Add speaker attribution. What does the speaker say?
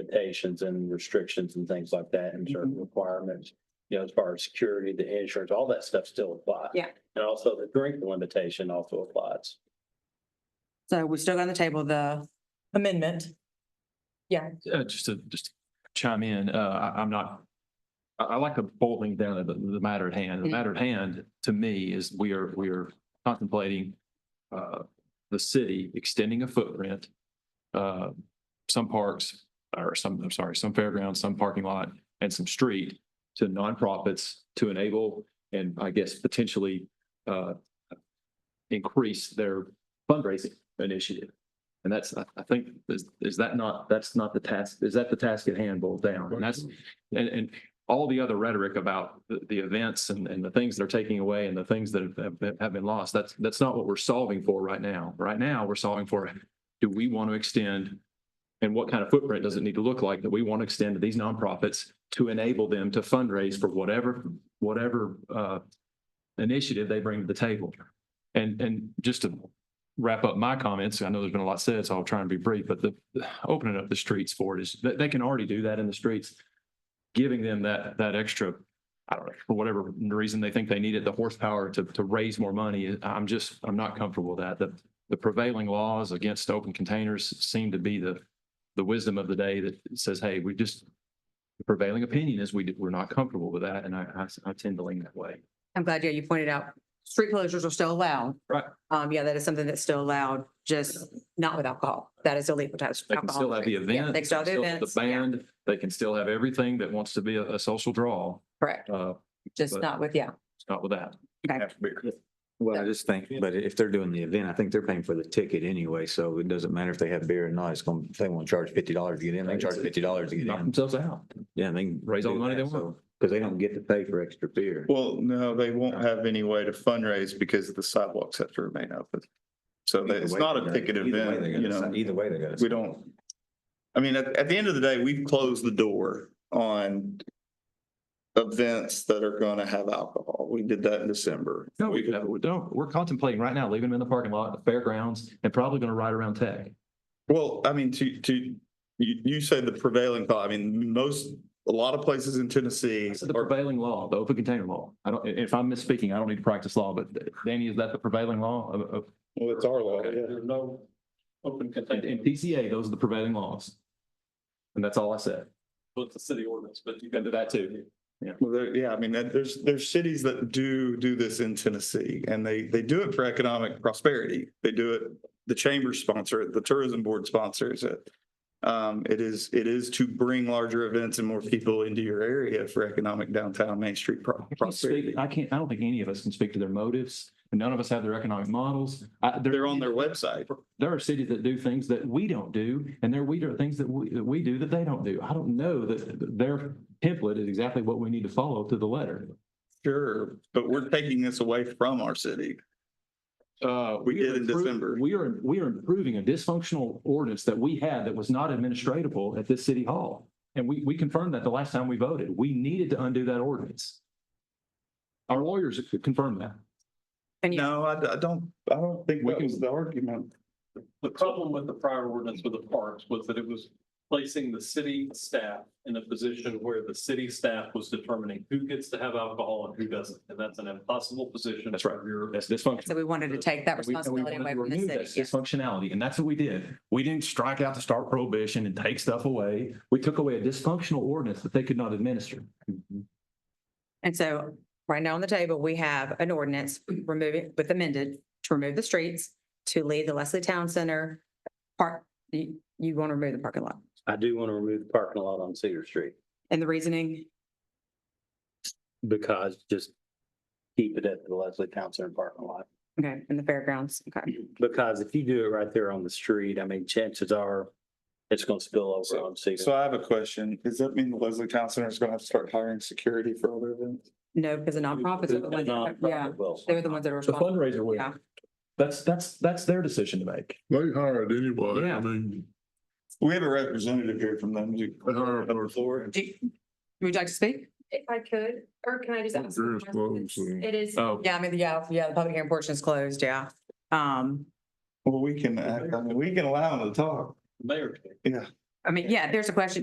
Speaker 1: limitations and restrictions and things like that and
Speaker 2: Mm-hmm.
Speaker 1: certain requirements. You know, as far as security, the insurance, all that stuff still applies.
Speaker 3: Yeah.
Speaker 1: And also the drink limitation also applies.
Speaker 4: So we're still going to table the amendment.
Speaker 5: uh, just to, just chime in, uh, I, I'm not, I, I like the boiling down of the, the matter at hand. The matter at hand, to me, is we are, we are contemplating, uh, the city extending a footprint. Uh, some parks, or some, I'm sorry, some fairgrounds, some parking lot, and some street to nonprofits to enable and I guess potentially, uh, increase their fundraising initiative. And that's, I, I think, is, is that not, that's not the task, is that the task at hand boiled down? And that's, and, and all the other rhetoric about the, the events and, and the things that are taking away and the things that have- have, been- have been lost, that's, that's not what we're solving for right now. Right now, we're solving for, do we want to extend? And what kind of footprint does it need to look like that we want to extend to these nonprofits to enable them to fundraise for whatever, whatever, uh, initiative they bring to the table? And, and just to wrap up my comments. I know there's been a lot said, so I'll try and be brief, but the, the- opening up the streets for it is, they, they can already do that in the streets. Giving them that, that extra, I don't know, for whatever reason they think they needed the horsepower to, to raise more money. I'm just, I'm not comfortable with that. The, the prevailing laws against open containers seem to be the, the wisdom of the day that says, hey, we just, the prevailing opinion is we, we're not comfortable with that, and I, I- I tend to lean that way.
Speaker 4: I'm glad, yeah, you pointed out, street closures are still allowed.
Speaker 5: Right.
Speaker 4: Um, yeah, that is something that's still allowed, just not with alcohol. That is illegal to have.
Speaker 5: They can still
Speaker 4: alcohol.
Speaker 5: have the
Speaker 4: Yeah,
Speaker 5: event.
Speaker 4: They can still have the
Speaker 5: have
Speaker 4: events.
Speaker 5: The
Speaker 4: Yeah,
Speaker 5: band, they can still have everything that wants to be a, a social draw,
Speaker 4: Correct,
Speaker 5: uh,
Speaker 4: just
Speaker 5: but-
Speaker 4: not with, yeah.
Speaker 5: not with that.
Speaker 2: Well, I just think, but if they're doing the event, I think they're paying for the ticket anyway, so it doesn't matter if they have beer or not, it's gonna, if they wanna charge fifty dollars to get in, they charge fifty dollars to get
Speaker 5: Knock
Speaker 2: in.
Speaker 5: themselves out.
Speaker 2: Yeah, they can.
Speaker 5: Raise all the money they want.
Speaker 2: Cause they don't get to pay for extra beer.
Speaker 6: Well, no, they won't have any way to fundraise because the sidewalks have to remain open. So they- it's
Speaker 2: Either way,
Speaker 6: not
Speaker 2: they
Speaker 6: a
Speaker 2: gotta-
Speaker 6: ticket
Speaker 2: either way,
Speaker 6: event,
Speaker 2: they gotta
Speaker 6: you know,
Speaker 2: sign- Either way, they gotta.
Speaker 6: we don't. I mean, at, at the end of the day, we've closed the door on events that are going to have alcohol. We did that in December.
Speaker 5: No, we could have, we don't, we're contemplating right now, leaving them in the parking lot, the fairgrounds, and probably gonna ride around tech.
Speaker 6: Well, I mean, to, to, you, you said the prevailing thought. I mean, most, a lot of places in Tennessee
Speaker 5: That's the
Speaker 6: are
Speaker 5: prevailing law, the open container law. I don't, if I'm misspeaking, I don't need to practice law, but Danny, is that the prevailing law of, of,
Speaker 6: Well, it's our law, yeah.
Speaker 1: There's no open
Speaker 5: in in PCA, those are the prevailing laws. And that's all I said.
Speaker 1: with the city ordinance, but you
Speaker 5: can do that too.
Speaker 6: Well, there, yeah, I mean, that- there's, there's cities that do, do this in Tennessee and they, they do it for economic prosperity. They do it, the chambers sponsor it, the tourism board sponsors it. Um, it is, it is to bring larger events and more people into your area for economic downtown Main Street pro-
Speaker 5: I can't
Speaker 6: prosperity.
Speaker 5: speak- I can't, I don't think any of us can speak to their motives. and None of us have their economic models. I- there-
Speaker 6: They're on their website.
Speaker 5: There are cities that do things that we don't do, and there we are things that we, that we do that they don't do. I don't know that their template is exactly what we need to follow to the letter.
Speaker 6: Sure, but we're taking this away from our city.
Speaker 5: Uh,
Speaker 6: We did in
Speaker 5: are improv-
Speaker 6: December.
Speaker 5: We are, we are improving a dysfunctional ordinance that we had that was not administratable at this city hall. And we, we confirmed that the last time we voted. We needed to undo that ordinance. Our lawyers confirmed that.
Speaker 4: And you,
Speaker 6: No, I, I don't, I don't think
Speaker 5: We
Speaker 6: that
Speaker 5: can-
Speaker 6: was the argument.
Speaker 1: The problem with the prior ordinance with the parks was that it was placing the city staff in a position where the city staff was determining who gets to have alcohol and who doesn't. And that's an impossible position.
Speaker 5: That's right.
Speaker 1: for your-
Speaker 5: That's dysfunctional.
Speaker 4: so we wanted to take that
Speaker 5: And we- and we
Speaker 4: responsibility
Speaker 5: wanted
Speaker 4: away
Speaker 5: to
Speaker 4: from the city.
Speaker 5: remove that
Speaker 4: yeah.
Speaker 5: Dysfunctionality, and that's what we did. We didn't strike out the start prohibition and take stuff away. We took away a dysfunctional ordinance that they could not administer.
Speaker 4: And so right now on the table, we have an ordinance removing, with amended, to remove the streets, to leave the Leslie Town Center park, you, you want to remove the parking lot.
Speaker 1: I do want to remove the parking lot on Cedar Street
Speaker 4: And the reasoning,
Speaker 1: because just keep it at the Leslie Town Center parking lot.
Speaker 4: okay, and the fairgrounds, okay.
Speaker 1: Because if you do it right there on the street, I mean, chances are it's going to spill over on
Speaker 6: So
Speaker 1: Cedar.
Speaker 6: I have a question. Does that mean the Leslie Town Center is going to have to start hiring security for other events?
Speaker 4: No, because the nonprofits are the ones, that- yeah, they're the ones that are
Speaker 5: The
Speaker 4: responsible.
Speaker 5: fundraiser will.
Speaker 4: Yeah.
Speaker 5: That's, that's, that's their decision to make.
Speaker 7: They hired anyway.
Speaker 5: Yeah.
Speaker 7: I mean,
Speaker 6: We have a representative here from them. You-
Speaker 7: they hired.
Speaker 6: On the floor.
Speaker 4: Do you- Would you like to speak?
Speaker 8: If I could, or can I just ask?
Speaker 7: Sure,
Speaker 8: a
Speaker 7: it's
Speaker 8: question?
Speaker 7: closed,
Speaker 8: It's-
Speaker 7: yeah.
Speaker 8: It is,
Speaker 5: Oh,
Speaker 4: Yeah, I mean, yeah, yeah, the public hearing portion is closed, yeah. Um,
Speaker 6: Well, we can, act- I mean, we can allow them to talk.
Speaker 1: Mayor.
Speaker 6: Yeah.
Speaker 4: I mean, yeah, there's a question.